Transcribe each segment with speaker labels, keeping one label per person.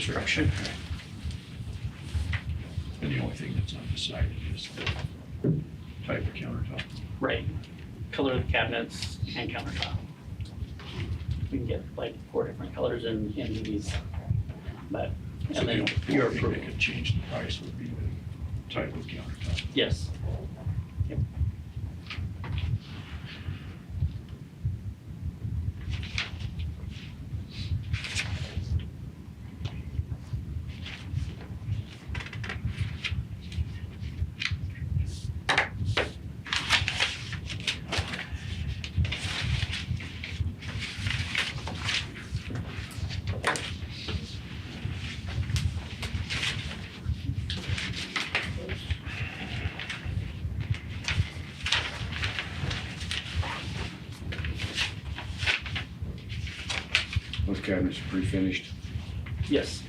Speaker 1: construction.
Speaker 2: And the only thing that's not decided is the type of countertop.
Speaker 1: Right. Color of the cabinets and countertop. We can get like four different colors in, in these, but,
Speaker 2: So
Speaker 1: and
Speaker 2: the
Speaker 1: then
Speaker 2: only
Speaker 1: your
Speaker 2: thing
Speaker 1: approval.
Speaker 2: that could change the price would be the type of countertop.
Speaker 1: Yes. Yep.
Speaker 3: Those cabinets are pre-finished.
Speaker 1: Yes.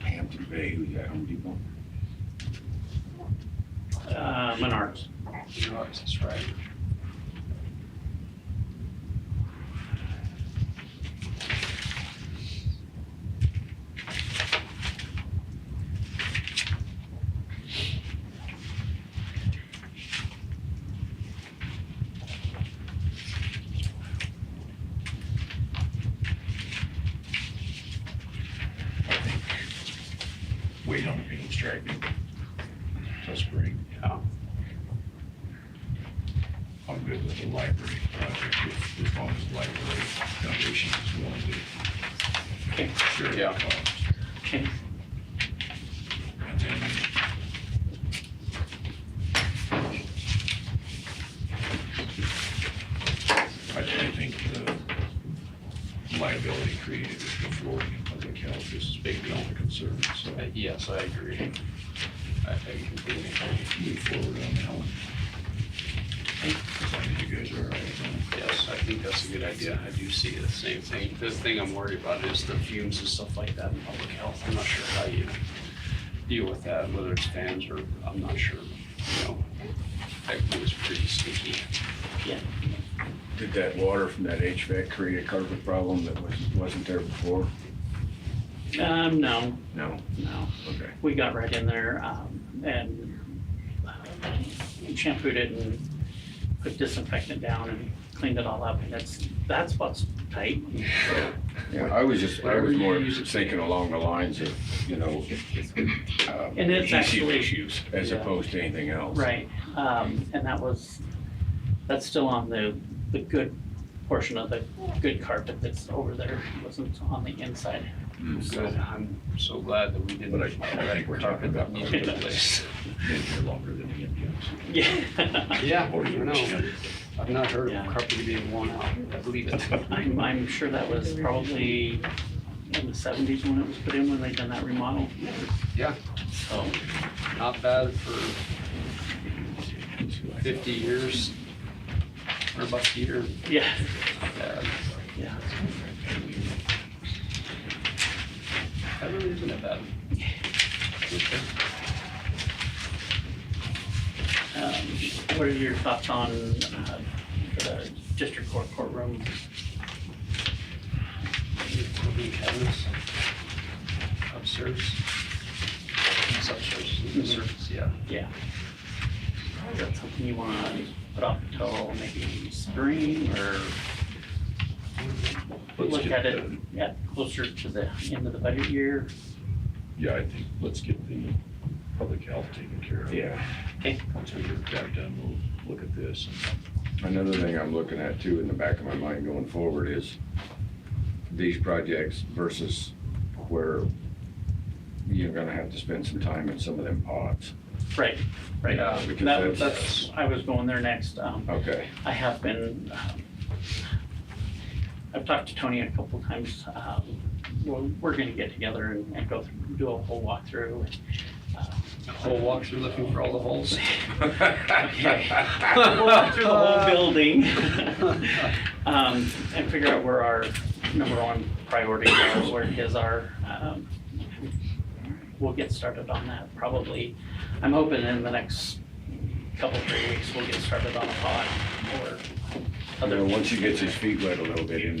Speaker 3: Hampton Bay, who's at Home Depot?
Speaker 1: Uh, Menards.
Speaker 2: Yours is right. I think Wait on the paint striping till spring. Yeah. I'm good with the library project, if, if on the library foundation is willing to.
Speaker 1: Okay.
Speaker 2: share the
Speaker 3: Yeah.
Speaker 2: cost.
Speaker 1: Okay.
Speaker 2: And then I, I think the liability created with the flooring in public health is big on the concern, so
Speaker 4: Uh, Yes, I agree. I I completely agree.
Speaker 2: move forward on that one. I think you guys are all right with that.
Speaker 4: Yes, I think that's a good idea. I do see the same thing. The thing I'm worried about is the fumes and stuff like that in public health. I'm not sure how you deal with that, whether it's fans or, I'm not sure, you know. That was pretty sneaky.
Speaker 1: Yeah.
Speaker 3: Did that water from that HVAC create a carpet problem that was, wasn't there before?
Speaker 1: Um, no,
Speaker 3: No,
Speaker 1: no.
Speaker 3: okay.
Speaker 1: we got right in there um, and uh, shampooed it and put disinfectant down and cleaned it all up. And that's, that's what's tight.
Speaker 3: Yeah, I was just, I was more thinking along the lines of, you know, um,
Speaker 1: And it's
Speaker 3: adhesive
Speaker 1: actually-
Speaker 3: issues as
Speaker 1: Yeah.
Speaker 3: opposed to anything else.
Speaker 1: Right. Um, And that was, that's still on the, the good portion of the good carpet that's over there. It wasn't on the inside.
Speaker 3: Mm,
Speaker 4: Good. I'm so glad that we didn't.
Speaker 2: But I- I think we're talking about-
Speaker 4: Needs to be replaced.
Speaker 2: Been here longer than the Indians.
Speaker 1: Yeah.
Speaker 4: Yeah,
Speaker 2: Or
Speaker 4: I
Speaker 2: you
Speaker 4: know.
Speaker 2: understand.
Speaker 4: I've not heard
Speaker 1: Yeah.
Speaker 4: of carpet being worn out. I believe it.
Speaker 1: I'm, I'm sure that was probably in the seventies when it was put in, when they done that remodel.
Speaker 4: Yeah.
Speaker 1: So,
Speaker 4: Not bad for fifty years, or about a year.
Speaker 1: yeah,
Speaker 4: Yeah,
Speaker 1: yeah.
Speaker 4: That really isn't that bad. Okay.
Speaker 1: Um, What are your thoughts on uh, the district court courtroom?
Speaker 4: Open cabinets Upstairs. It's upstairs, it's upstairs, yeah.
Speaker 1: Yeah. Is that something you want to put off till maybe spring or
Speaker 2: Let's
Speaker 1: look
Speaker 2: get
Speaker 1: at it
Speaker 2: the-
Speaker 1: at closer to the end of the budget year?
Speaker 2: Yeah, I think, let's get the public health taken care of.
Speaker 3: Yeah.
Speaker 2: Once we get that done, we'll look at this and
Speaker 3: Another thing I'm looking at too in the back of my mind going forward is these projects versus where you're gonna have to spend some time in some of them pods.
Speaker 1: Right, right.
Speaker 4: Yeah,
Speaker 3: because
Speaker 1: That,
Speaker 3: that's-
Speaker 1: that's, I was going there next. Um,
Speaker 3: Okay,
Speaker 1: I have been, um, I've talked to Tony a couple times. um, We're, we're going to get together and and go through, do a whole walkthrough. uh,
Speaker 4: Whole walkthrough looking for all the holes.
Speaker 1: We'll walk through the whole building um, and figure out where our number one priority is, where his are. Um, We'll get started on that probably. I'm hoping in the next couple, three weeks, we'll get started on a pod or
Speaker 3: And
Speaker 1: other.
Speaker 3: then once he gets his feet wet a little bit in